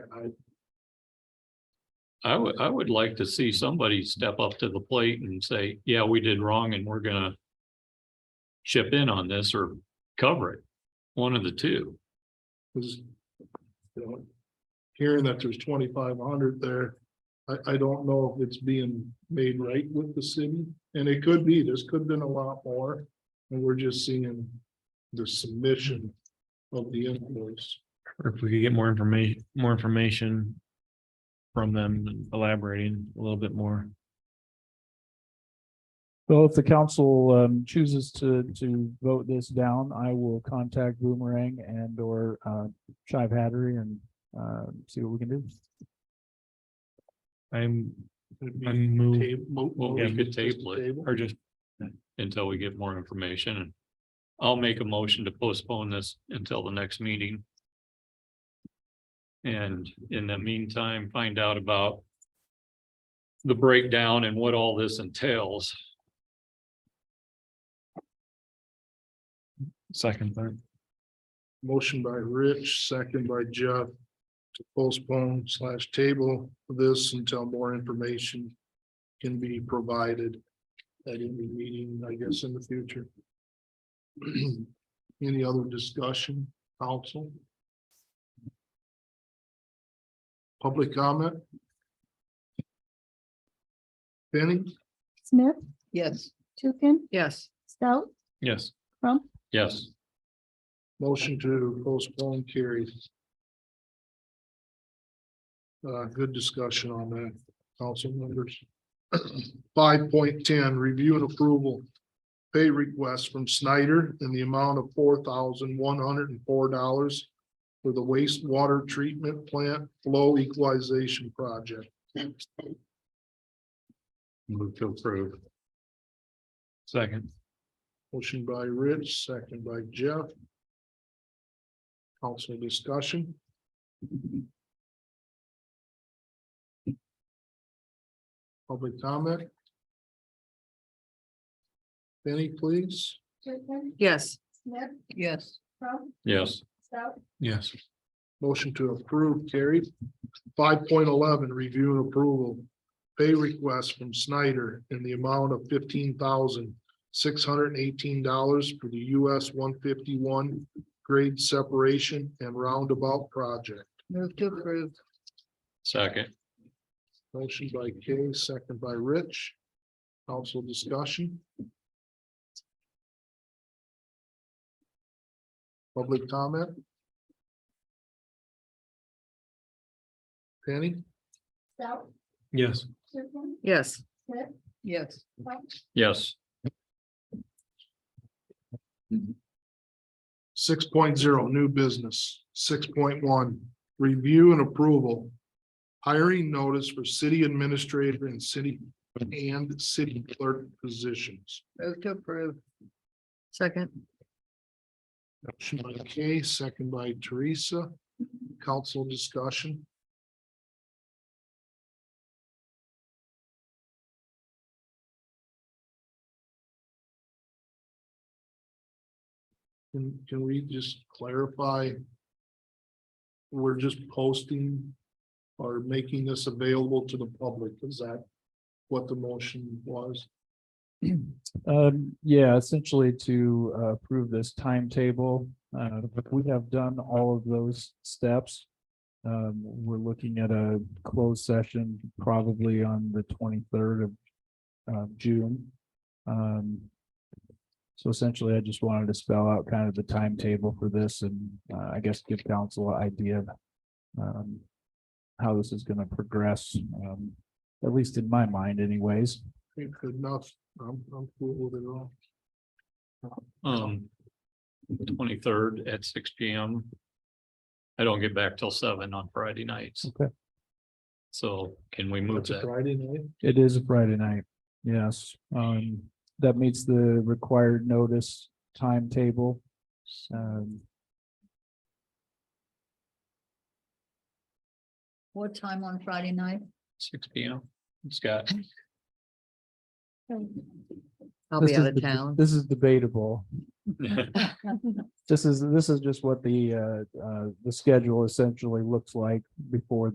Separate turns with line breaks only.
I,
I would, I would like to see somebody step up to the plate and say, yeah, we did wrong and we're gonna. Chip in on this or cover it, one of the two.
because, you know, hearing that there's twenty-five hundred there, I, I don't know if it's being made right with the city, and it could be, there's could have been a lot more, and we're just seeing the submission of the invoice.
Or if we could get more information, more information. From them elaborating a little bit more.
Well, if the council um chooses to to vote this down, I will contact Boomerang and or uh Shive Hattery and uh see what we can do.
I'm,
It'd be
I move
ta- mo-
Well,
Yeah,
we could
just
table it
or just,
until we get more information and. I'll make a motion to postpone this until the next meeting. And in the meantime, find out about. The breakdown and what all this entails.
second, third,
Motion by Rich, second by Jeff. To postpone slash table this until more information can be provided. At any meeting, I guess, in the future. Any other discussion, council? Public comment? Penny?
Smith,
Yes.
Tukin,
Yes.
Stout,
yes.
Crump,
Yes,
Motion to postpone carries. Uh, good discussion on that, council members. Five point ten, review and approval. Pay request from Snyder in the amount of four thousand one hundred and four dollars. For the wastewater treatment plant flow equalization project.
move to approve.
Second,
Motion by Rich, second by Jeff. Council discussion. Public comment. Benny, please.
Tukin,
Yes.
Smith,
Yes.
Crump,
Yes.
Stout,
yes,
Motion to approve carried. Five point eleven, review and approval. Pay request from Snyder in the amount of fifteen thousand six hundred and eighteen dollars for the US one fifty-one grade separation and roundabout project.
Move to approve.
Second,
Motion by Kay, second by Rich. Council discussion. Public comment. Penny?
Stout,
yes,
Tukin,
Yes.
Smith,
Yes.
Crump,
yes,
Six new business. Six point one, review and approval. Hiring notice for city administrator and city and city clerk positions.
Move to approve. Second.
Motion by Kay, second by Teresa. Council discussion. Can, can we just clarify? We're just posting or making this available to the public. Is that what the motion was?
Um, yeah, essentially to uh, approve this timetable, uh, we have done all of those steps. Um, we're looking at a closed session probably on the twenty-third of uh, June. Um, so essentially, I just wanted to spell out kind of the timetable for this and uh, I guess give council an idea of um, how this is gonna progress, um, at least in my mind anyways.
Good enough. I'm, I'm cool with it all.
um. Twenty-third at six P M. I don't get back till seven on Friday nights.
Okay.
So can we move
That's a
that?
Friday night.
It is a Friday night, yes. Um, that meets the required notice timetable. Um,
What time on Friday night?
Six P M, Scott.
I'll be
This
out
is
of
deb-
town.
This is debatable.
All
This is, this is just what the, uh, uh, the schedule essentially looks like before